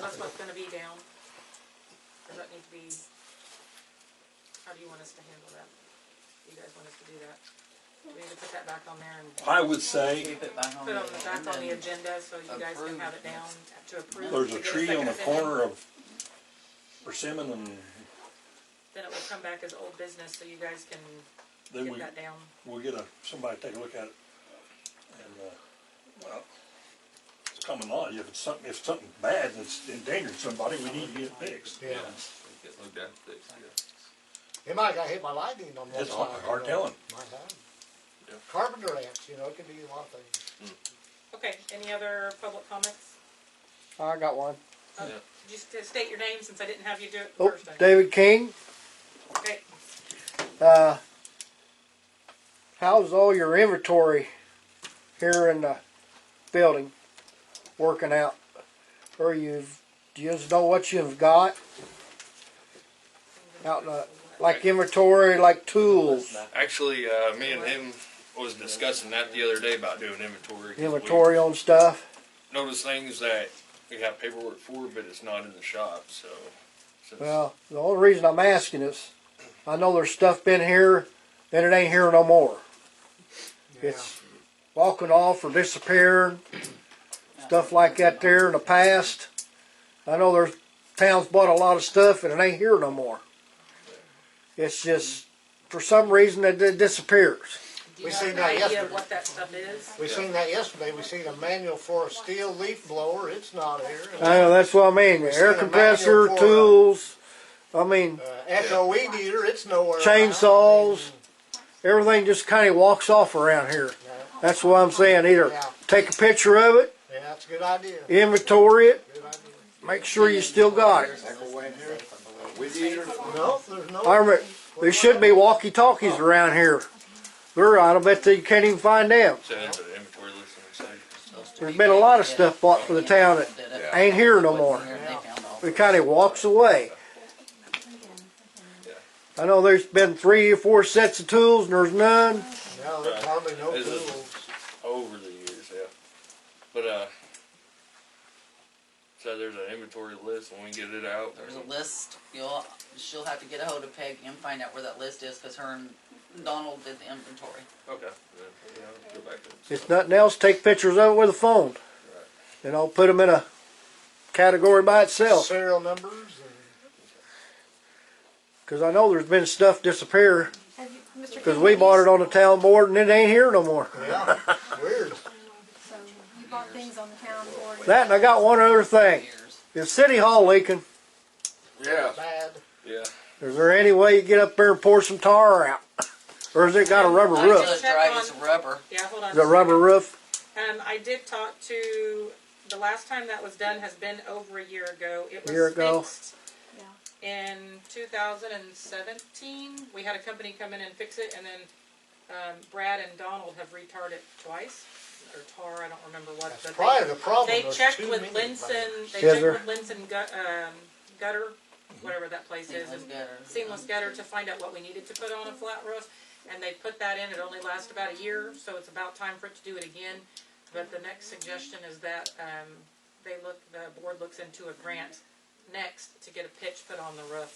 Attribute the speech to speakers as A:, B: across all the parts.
A: That's what's gonna be down? Does that need to be, how do you want us to handle that? You guys want us to do that? Do We need to put that back on there and
B: I would say
C: Keep it back
A: put
C: on the.
A: it on the, back on the
C: agenda.
A: agenda so you guys can have it down to approve.
B: there's
A: to
B: a
A: get
B: tree
A: second
B: on the
A: opinion.
B: corner of Persimmon and
A: Then it will come back as old business so you guys can
B: then
A: get
B: we,
A: that down.
B: we'll get a, somebody to take a look at it. And, uh, well, it's common law, if it's something, if it's something bad and it's endangering somebody, we need to get it fixed.
D: Yeah.
E: Get looked at, fixed, yeah.
D: It might have got hit by lightning on one
B: It's
D: side.
B: hard- hard
D: you know.
B: telling.
D: Might have.
E: Yeah.
D: Carpenter ants, you know, it could be a lot of things.
A: Okay, any other public comments?
F: I got one.
A: Just to state your name since I didn't have you do it the
F: Oh,
A: first time.
F: David King,
A: Okay,
F: uh, how's all your inventory here in the building working out? Or you've, do you just know what you've got? Out in the, like inventory, like tools,
G: Actually, uh, me and him was discussing that the other day about doing inventory. 'cause we
F: inventory on stuff.
G: Notice things that we have paperwork for, but it's not in the shop, so. since-
F: Well, the only reason I'm asking is, I know there's stuff been here, and it ain't here no more.
D: Yeah.
F: It's walking off or disappearing, stuff like that there in the past. I know there's towns bought a lot of stuff and it ain't here no more. It's just, for some reason, it it disappears.
A: do you
D: We
A: have
D: seen
A: an
D: that
A: idea of
D: yesterday.
A: what that stuff is?
D: We seen that yesterday. We seen a manual for a steel leaf blower. It's not here.
F: I know, that's what I mean, air compressor, tools, I mean,
D: Uh, Echo weed eater, it's nowhere. around.
F: chainsaws, everything just kinda walks off around here.
D: Yeah,
F: That's what I'm saying, either take a picture of it,
D: yeah, that's a good idea.
F: inventory it,
D: Good idea.
F: make sure you still got it.
D: No, there's no.
F: I remember, there should be walkie-talkies around here. They're, I bet that you can't even find them.
G: Send it to the inventory list and say,
F: There's been a lot of stuff bought for the town that
C: Did it.
F: ain't here no more.
C: Wasn't here, they found all-
F: It kinda walks away. I know there's been three or four sets of tools and there's none.
D: No, there's hardly no
G: Is it-
D: tools.
G: over the years, yeah. But, uh, so there's an inventory list when we get it out.
C: There's a list, you'll, she'll have to get a hold of Peggy and find out where that list is, cause her and Donald did the inventory.
G: Okay. then, yeah, Go back to it.
F: If nothing else, take pictures of it with a phone. And I'll put them in a category by itself.
D: Serial numbers and.
F: Cause I know there's been stuff disappear,
H: Have you, Mr.
F: cause we bought it on the town board and it ain't here no more.
D: Yeah, weird.
H: So you bought things on the town board.
F: That and I got one other thing.
C: Years.
F: Is City Hall leaking?
G: Yeah,
D: Bad.
G: yeah.
F: Is there any way you get up there and pour some tar out? Or has it got a rubber
C: I
F: roof?
C: just drive as rubber.
A: Yeah, hold on.
F: Is it a rubber roof?
A: Um, I did talk to, the last time that was done has been over a year ago. It was
F: Year ago.
A: fixed
H: Yeah.
A: in 2017. We had a company come in and fix it, and then um, Brad and Donald have retarred it twice, or tar, I don't remember what. but
D: That's probably the problem.
A: they, they
D: There's
A: checked
D: too
A: with
D: many
A: Linson. They
F: Scissor.
A: checked with Linson gut, um, gutter,
D: Mm-hmm.
A: whatever that place is,
C: Seamless
A: and
C: gutter.
A: seamless gutter to find out what we needed to put on a flat roof, and they put that in, it only lasts about a year, so it's about time for it to do it again. But the next suggestion is that, um, they look, the board looks into a grant next to get a pitch put on the roof.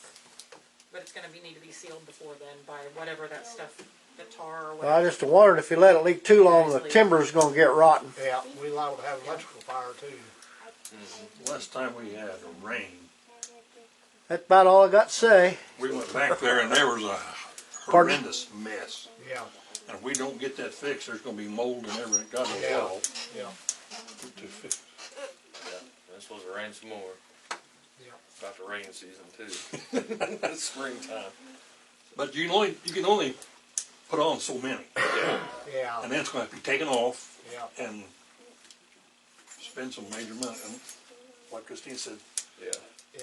A: But it's gonna be, need to be sealed before then by whatever that stuff, the tar or
F: Well, I
A: whatever.
F: just wondered if you let it leak too long, the timber's gonna get rotten.
D: Yeah, we liable to have electrical fire too.
B: Last time we had a rain,
F: That's about all I got to say.
B: we went back there and there was a
F: Pardon?
B: horrendous mess.
D: Yeah,
B: And if we don't get that fixed, there's gonna be mold and everything, God
D: Yeah.
B: will
D: yeah.
B: tell.
G: It's supposed to rain some more.
D: Yeah.
G: About the rain season too. Springtime.
B: But you can only, you can only put on so many,
D: Yeah,
B: and that's gonna have to be taken off
D: yeah.
B: and spend some major money. And Like Christine said,
G: Yeah.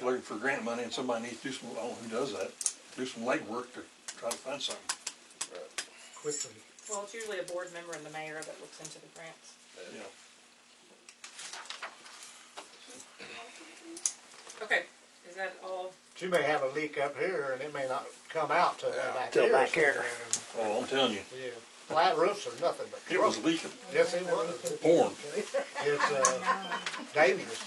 B: looking for grant money, and somebody needs to do some, I don't know who does that, do some legwork to try to find something.
D: Quickly.
A: Well, it's usually a board member and the mayor that looks into the grants.
B: Yeah.
A: Okay, is that all?
D: You may have a leak up here and it may not come out till back
F: Till
D: here.
F: back here.
D: somewhere.
B: Oh, I'm telling you,
D: Yeah, flat roofs are nothing but
B: it was
D: trouble.
B: leaking,
D: Yes, it was.
B: pouring.
D: It's, uh, dangerous.